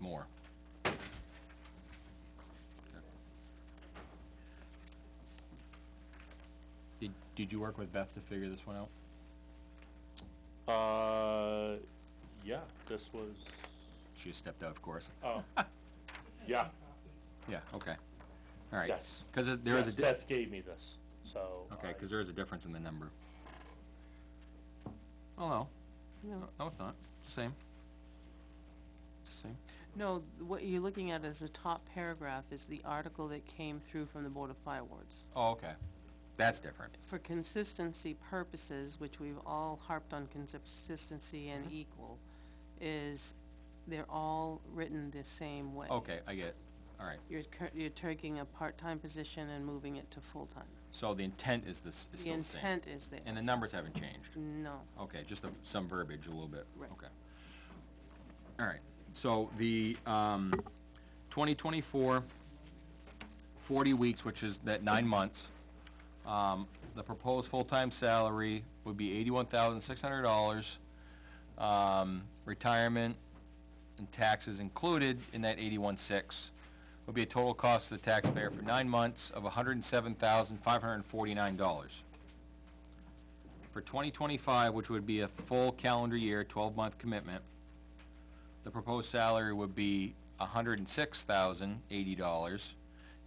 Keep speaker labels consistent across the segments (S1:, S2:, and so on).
S1: more. Did, did you work with Beth to figure this one out?
S2: Uh, yeah, this was,
S1: She just stepped out, of course.
S2: oh, yeah,
S1: Yeah, okay. All right.
S2: Yes.
S1: Because there is
S2: yes,
S1: a, di-
S2: Beth gave me this, so.
S1: okay,
S2: I-
S1: because there is a difference in the number. Oh, no. No, no, it's not. It's the same. It's the same.
S3: No, what you're looking at as the top paragraph is the article that came through from the Board of Fire Wards.
S1: Oh, okay. That's different.
S3: For consistency purposes, which we've all harped on consistency and
S1: Mm-hmm.
S3: equal, is they're all written the same way.
S1: Okay, I get it. All right.
S3: You're, cur- you're taking a part-time position and moving it to full-time.
S1: So the intent is this, is
S3: The
S1: still the same?
S3: intent is there.
S1: And the numbers haven't changed?
S3: No,
S1: Okay, just the- some verbiage a little bit?
S3: Right.
S1: Okay. All right, so the, um, 2024, 40 weeks, which is that nine months, um, the proposed full-time salary would be $81,600. Um, retirement and taxes included in that 81.6 would be a total cost to the taxpayer for nine months of $107,549 for 2025, which would be a full calendar year, 12-month commitment, the proposed salary would be $106,080,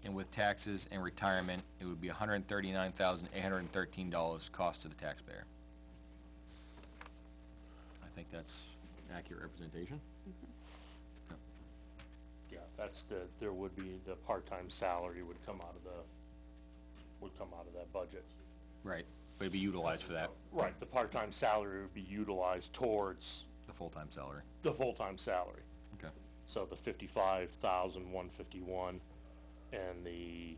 S1: and with taxes and retirement, it would be $139,813 cost to the taxpayer. I think that's accurate representation.
S2: Yeah, that's the, there would be, the part-time salary would come out of the, would come out of that budget.
S1: Right, but it'd be utilized for that,
S2: Right, the part-time salary would be utilized towards
S1: the full-time salary.
S2: the full-time salary.
S1: Okay.
S2: So the fifty-five thousand, one fifty-one, and the,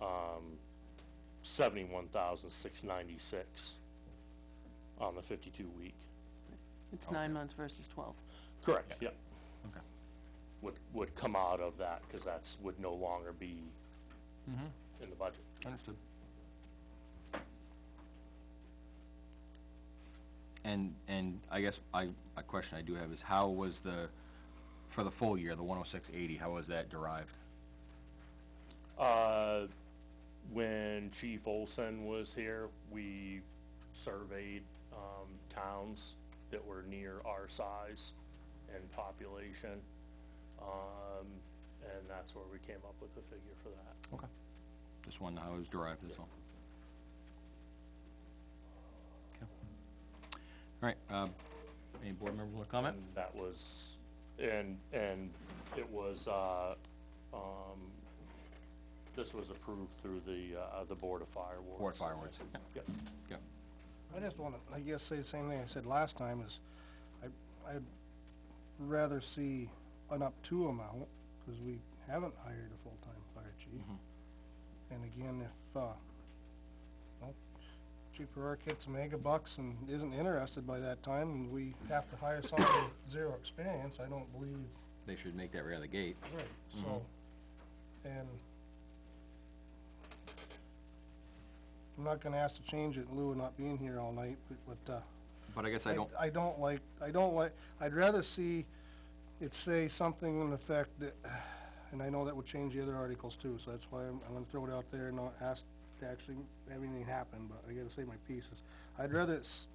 S2: um, seventy-one thousand, six ninety-six on the fifty-two week.
S3: it's nine months versus twelve.
S2: Correct, yep.
S1: Okay.
S2: Would, would come out of that, cause that's, would no longer be in the budget.
S1: Understood. And, and I guess I, a question I do have is how was the, for the full year, the one oh six eighty, how was that derived?
S2: Uh, when Chief Olson was here, we surveyed, um, towns that were near our size and population. Um, and that's where we came up with the figure for that.
S1: Okay. Just wondering how it was derived, that's all. Okay. All right, um, any board members want to comment?
S2: And that was, and, and it was, uh, um, this was approved through the, uh, the Board of Fire Wards.
S1: Board fireworks. Yeah,
S2: Yep.
S1: yeah.
S4: I just wanna, I guess, say the same thing I said last time is, I, I'd rather see an up to amount, cause we haven't hired a full-time fire chief. And again, if, uh, well, Chief Rourke gets mega bucks and isn't interested by that time, and we have to hire someone with zero experience, I don't believe
S1: They should make that right out of the gate.
S4: Right, so, and I'm not gonna ask to change it in lieu of not being here all night, but, but, uh,
S1: But I guess I don't,
S4: I don't like, I don't like, I'd rather see it say something in effect that, and I know that would change the other articles too, so that's why I'm, I'm gonna throw it out there and not ask to actually have anything happen, but I gotta say my pieces. I'd rather it's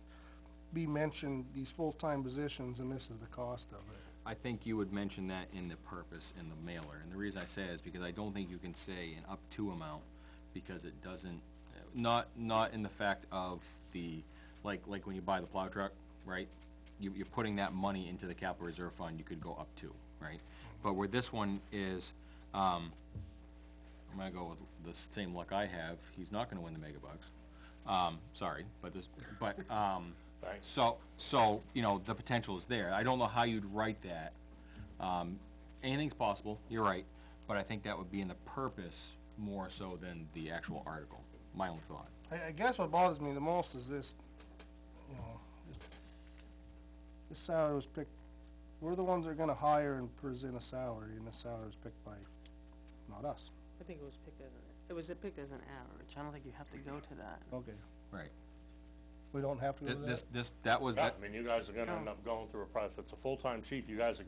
S4: be mentioned, these full-time positions, and this is the cost of it.
S1: I think you would mention that in the purpose, in the mailer, and the reason I say is because I don't think you can say an up to amount, because it doesn't, not, not in the fact of the, like, like when you buy the plow truck, right? You, you're putting that money into the capital reserve fund, you could go up to, right? But where this one is, um, I'm gonna go with the same luck I have, he's not gonna win the mega bucks, um, sorry, but this, but, um,
S2: Thanks.
S1: so, so, you know, the potential is there. I don't know how you'd write that. Um, anything's possible, you're right, but I think that would be in the purpose more so than the actual article, my own thought.
S4: I, I guess what bothers me the most is this, you know, this, this salary was picked, we're the ones that are gonna hire and present a salary, and the salary was picked by, not us.
S3: I think it was picked as an, it was picked as an average. I don't think you have to go to that.
S4: Okay.
S1: Right.
S4: We don't have to go
S1: Th-
S4: to that?
S1: This, this, that was,
S2: Yeah,
S1: that, Oh.
S2: I mean, you guys are gonna end up going through a, pro- if it's a full-time chief, you guys are